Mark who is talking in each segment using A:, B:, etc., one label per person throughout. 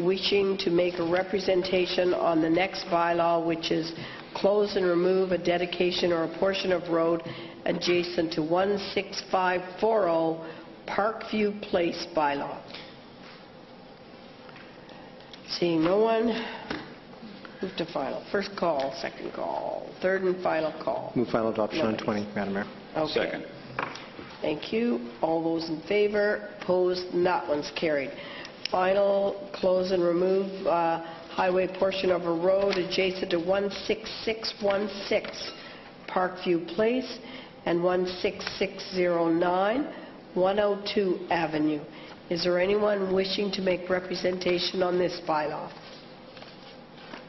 A: wishing to make a representation on the next bylaw, which is close and remove a dedication or a portion of road adjacent to 16540 Parkview Place bylaw. Seeing no one, move to final. First call, second call, third and final call.
B: Move final adoption on
A: Nobody's.
B: 20, Madam Mayor.
A: Okay.
C: Second.
A: Thank you. All those in favor, opposed, and that one's carried. Final, close and remove uh, highway portion of a road adjacent to 16616 Parkview Place and 16609 102 Avenue. Is there anyone wishing to make representation on this bylaw?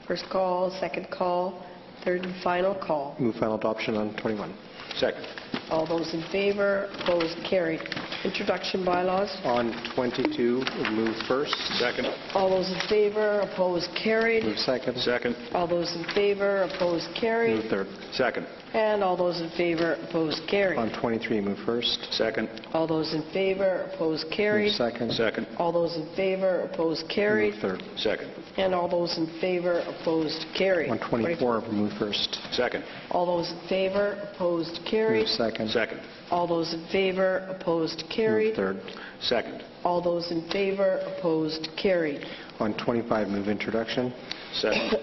A: First call, second call, third and final call.
B: Move final adoption on 21.
C: Second.
A: All those in favor, opposed, carried. Introduction bylaws.
B: On 22, move first.
C: Second.
A: All those in favor, opposed, carried.
B: Move second.
C: Second.
A: All those in favor, opposed,
B: Move
A: carried.
B: third.
C: Second.
A: And all those in favor, opposed,
B: On
A: carried.
B: 23, move first.
C: Second.
A: All those in favor, opposed,
B: Move
A: carried.
B: second.
C: Second.
A: All those in favor, opposed, carried.
B: Move third.
C: Second.
A: And all those in favor, opposed, carried.
B: On 24, move first.
C: Second.
A: All those in favor, opposed,
B: Move
A: carried.
B: second.
C: Second.
A: All those in favor, opposed,
B: Move
A: carried.
B: third.
C: Second.
A: All those in favor, opposed, carried.
B: On 25, move introduction.
C: Second.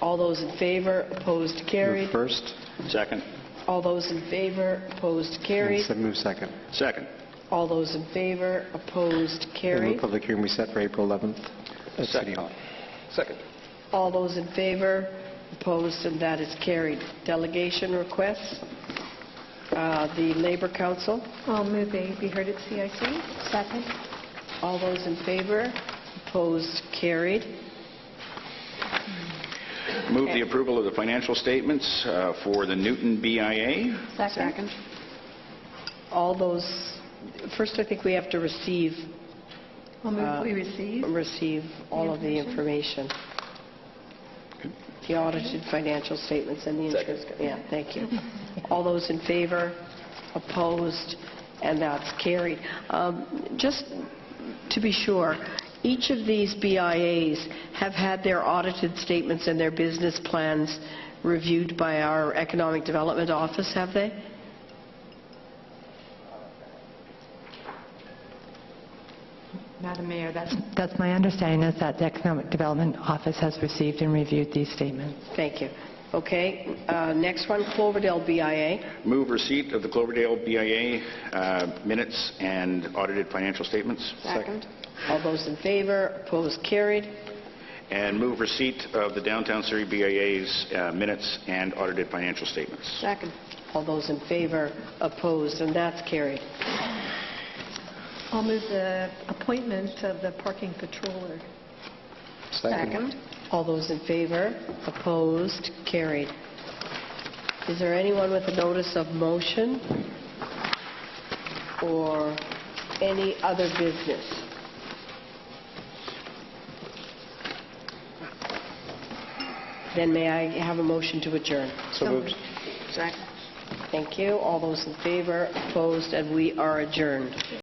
A: All those in favor, opposed, carried.
B: Move first.
C: Second.
A: All those in favor, opposed,
B: And
A: carried.
B: se- Move second.
C: Second.
A: All those in favor, opposed,
B: And move
A: carried.
B: public hearing we set for April 11th at City
C: Second.
B: Hall.
C: Second.
A: All those in favor, opposed, and that is carried. Delegation requests, Uh, the Labor Council,
D: I'll move they be heard at CIC. Second.
A: all those in favor, opposed, carried.
C: Move the approval of the financial statements uh, for the Newton BIA.
D: Second.
A: All those, first, I think we have to receive,
D: I'll move we receive.
A: receive all of the information. The audited financial statements and the insurance. Yeah, thank you. All those in favor, opposed, and that's carried. Um, Just to be sure, each of these BIAs have had their audited statements and their business plans reviewed by our Economic Development Office, have they?
D: Madam Mayor, that's...
E: That's my understanding, is that the Economic Development Office has received and reviewed these statements.
A: Thank you. Okay, uh, next one, Cloverdale BIA.
C: Move receipt of the Cloverdale BIA uh, minutes and audited financial statements.
D: Second.
A: All those in favor, opposed, carried.
C: And move receipt of the Downtown Surrey BIA's uh, minutes and audited financial statements.
D: Second.
A: All those in favor, opposed, and that's carried.
D: I'll move the appointment of the parking patroller.
A: All those in favor, opposed, carried. Is there anyone with a notice of motion or any other business? Then may I have a motion to adjourn?
B: So moved.
D: Second.
A: Thank you. All those in favor, opposed, and we are adjourned.